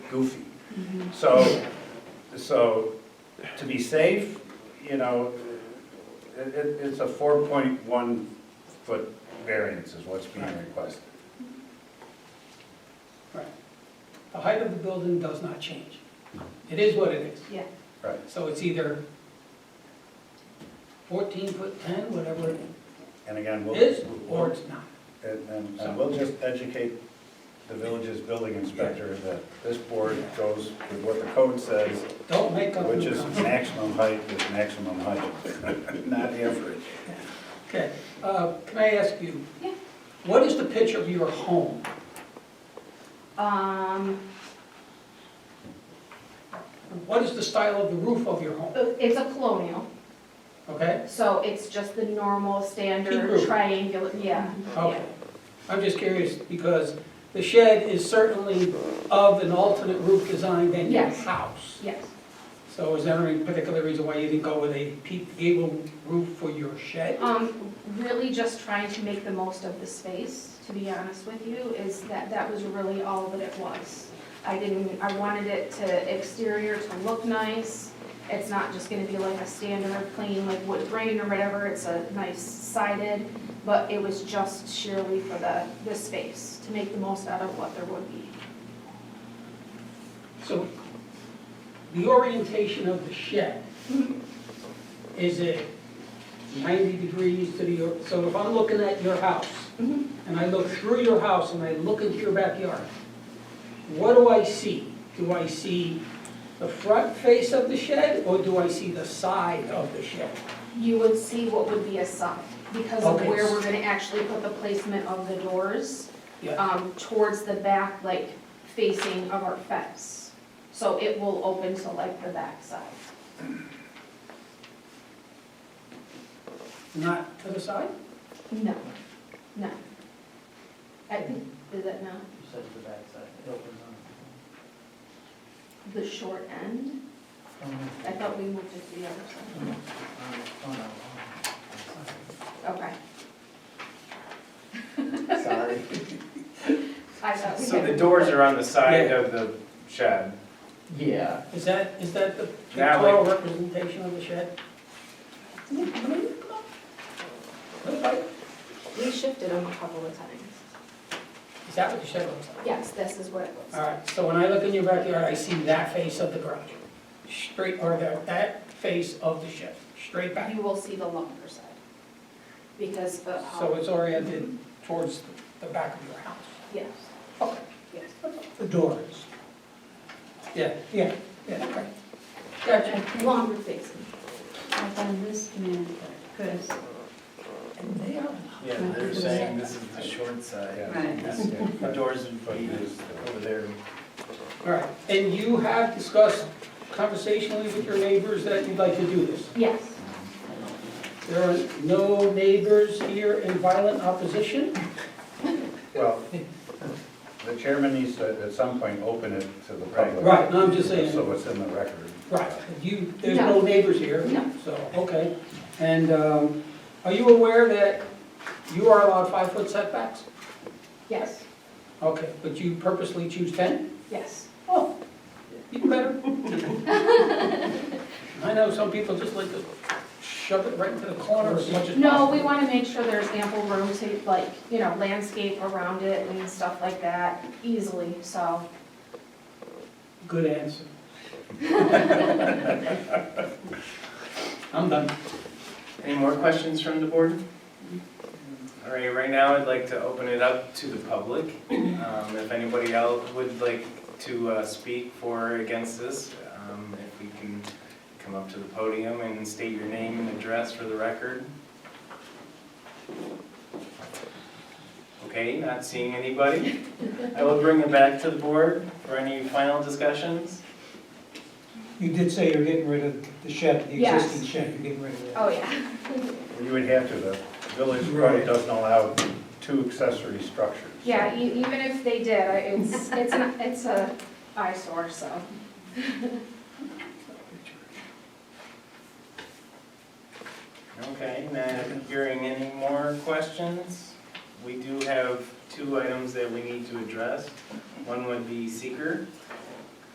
goofy. Mm-hmm. So, so to be safe, you know, it, it- it's a four point one foot variance is what's being requested. Right. The height of the building does not change. It is what it is. Yeah, Right. So it's either 14 foot 10, whatever it And again, we'll. is, or it's not. And, and- and we'll just educate the village's building inspector that this board goes with what the code says, Don't make up which new is concepts. maximum height is maximum height, not average. Okay, uh, can I ask you? Yeah. What is the pitch of your home? um, What is the style of the roof of your home? it's a colonial, Okay? so it's just the normal Peak standard roof. triangular, yeah. Okay. I'm just curious because the shed is certainly of an alternate roof design than your Yes. house. Yes, So is there any particular reason why you didn't go with a peaked gable roof for your shed? um, really just trying to make the most of the space, to be honest with you, is that, that was really all that it was. I didn't, I wanted it to exterior to look nice, it's not just gonna be like a standard plain like wood grain or whatever, it's a nice sided, but it was just surely for the, the space, to make the most out of what there would be. So the orientation of the shed, is it 90 degrees to the, or- so if I'm looking at your house, Mhm. and I look through your house and I look into your backyard, what do I see? Do I see the front face of the shed, or do I see the side of the shed? you would see what would be a side, because of Okay. where we're gonna actually put the placement of the doors, Yeah, um, towards the back, like facing of our fence. So it will open to like the back side. not to the side? No, no. I think, is that not You said the backside, it opens on. the short end? I thought we moved it to the other side. Okay, Sorry. I thought we So had. the doors are on the side of the shed. Yeah, Is that, is that the That pictorial representation of the shed? Is We shifted them a couple of times. that what the shed looks like? Yes, this is what it was. All right, so when I look in your backyard, I see that face of the garage, straight, or that, that face of the shed, straight back. You will see the longer side, because of how. So it's oriented towards the back of your house. Yes, Okay. yes. The doors. Yeah, yeah, yeah, okay. Gotcha. Longer facing. I found this command because And they are, Yeah, they're saying this is the short side. The doors and feet is uh, over there. all right, and you have discussed conversationally with your neighbors that you'd like to do this? Yes, There are no neighbors here in violent opposition? Well, the chairman needs to, at some point, open it to the public. Right, no, I'm just saying, So it's in the record. right, you, there's no neighbors here? No. So, okay. And um, are you aware that you are allowed five-foot setbacks? yes, Okay, but you purposely choose 10? yes. Oh, even better. I know some people just like to shove it right into the corner as much as possible. No, we want to make sure there's ample room to, like, you know, landscape around it and stuff like that easily, so. Good answer. I'm done. Any more questions from the board? All right, right now I'd like to open it up to the public. Um, If anybody else would like to uh, speak for or against this, um, if we can come up to the podium and state your name and address for the record. Okay, not seeing anybody. I will bring it back to the board for any final discussions. You did say you're getting rid of the shed, the Yes. existing shed, you're getting rid of that. Oh, yeah. You would have to, the village code doesn't allow two accessory structures. Yeah, e- even if they did, I- it's, it's an, it's a eyesore, so. Okay, not hearing any more questions. We do have two items that we need to address. One would be seeker,